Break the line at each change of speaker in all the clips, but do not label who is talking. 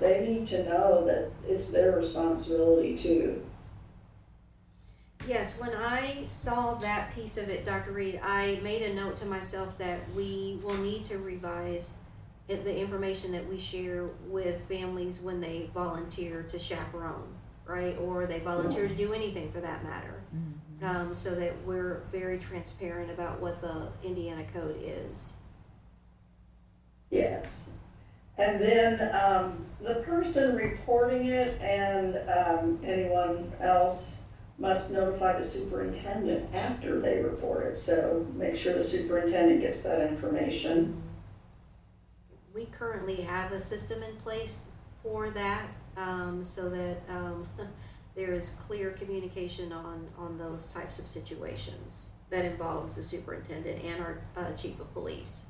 they need to know that it's their responsibility too.
Yes, when I saw that piece of it, Dr. Reed, I made a note to myself that we will need to revise it- the information that we share with families when they volunteer to chaperone, right? Or they volunteer to do anything for that matter. Um, so that we're very transparent about what the Indiana code is.
Yes. And then, um, the person reporting it and, um, anyone else must notify the superintendent after they report it. So make sure the superintendent gets that information.
We currently have a system in place for that, um, so that, um, there is clear communication on, on those types of situations that involves the superintendent and our, uh, chief of police.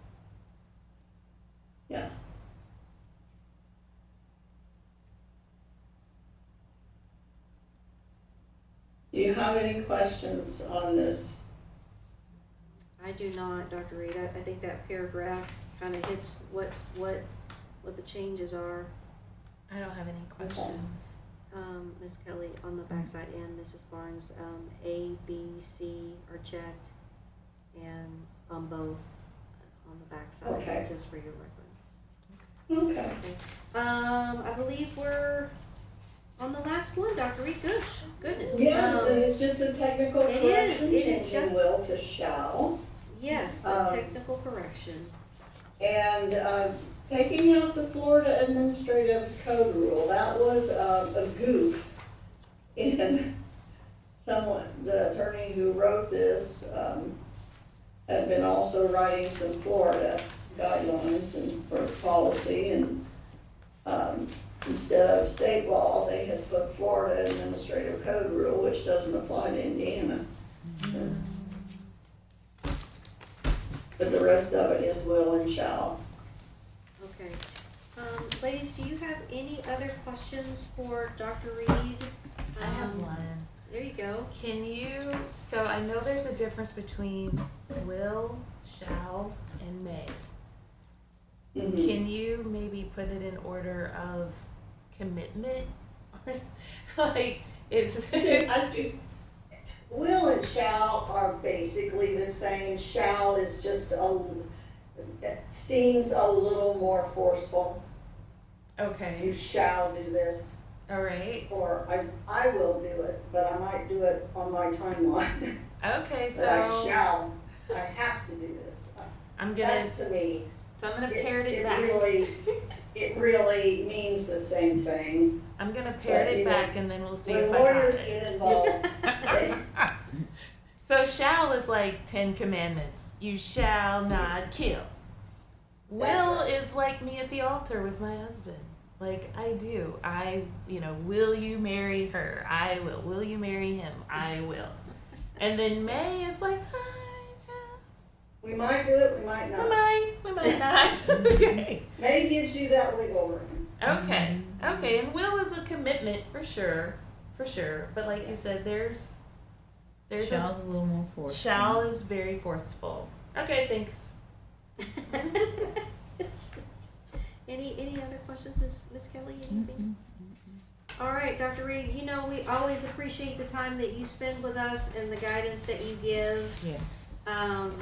Do you have any questions on this?
I do not, Dr. Reed, I, I think that paragraph kinda hits what, what, what the changes are,
I don't have any questions.
um, Ms. Kelly on the backside and Mrs. Barnes, um, A, B, C are checked and on both, on the
Okay.
backside, just for your reference.
Okay.
Um, I believe we're on the last one, Dr. Reed Goosh. Goodness.
Yes,
Um,
and it's just a technical
it is,
correction,
it is
changing
just-
will to shall.
yes,
um,
a technical correction.
And uh, taking out the Florida Administrative Code rule, that was uh, a goof in someone, the attorney who wrote this um, had been also writing some Florida guidelines and for policy and um, instead of state law, they had put Florida Administrative Code rule, which doesn't apply to Indiana. But the rest of it is will and shall.
Okay. Um, ladies, do you have any other questions for Dr. Reed?
I have
Um,
one.
There you go.
Can you, so I know there's a difference between will, shall, and may.
Mhm.
Can you maybe put it in order of commitment? like, it's.
I do. Will and shall are basically the same. Shall is just a, it seems a little more forceful. You
okay,
shall do this,
all right.
or I, I will do it, but I might do it on my timeline.
Okay,
But I
so
Uh, shall, I have to do this.
I'm gonna,
That's to me,
so I'm gonna
it,
parrot it
it
back.
really, it really means the same thing.
I'm gonna parrot
but, you
it
know,
back and then we'll see
When
if I got
lawyers
it.
get involved, they
So shall is like Ten Commandments. You shall not kill. Will
That's
is like me at the altar with my husband. Like I do. I you know, will you marry her? I will. Will you marry him? I will. And then May is like, I
we might do it, we might
know.
not.
we might, we might not. okay.
May gives you that wiggle room.
Okay.
Mm-hmm.
Okay. And will is a commitment for sure. For sure. But like you said, there's there's a
Shall's a little more forceful.
Shall is very forceful. Okay, thanks.
any any other questions, Miss Miss Kelly? Anything?
Mm-hmm.
All right, Dr. Reed. You know we always appreciate the time that you spend with us and the guidance that you give.
Yes.
um,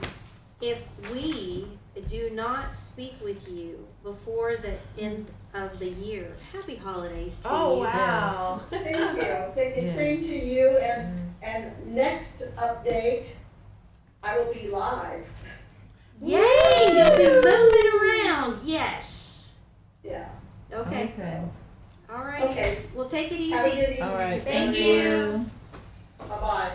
if we do not speak with you before the end of the year, happy holidays to
Oh,
you.
wow.
Thank you, thank you, same to you, and, and next update, I will be live,
Yay! You'll be moving around. Yes.
yeah.
Okay.
Okay.
All right.
Mm-hmm. Okay,
We'll take it
have a
easy.
good
All right.
evening,
Thank you.
bye-bye.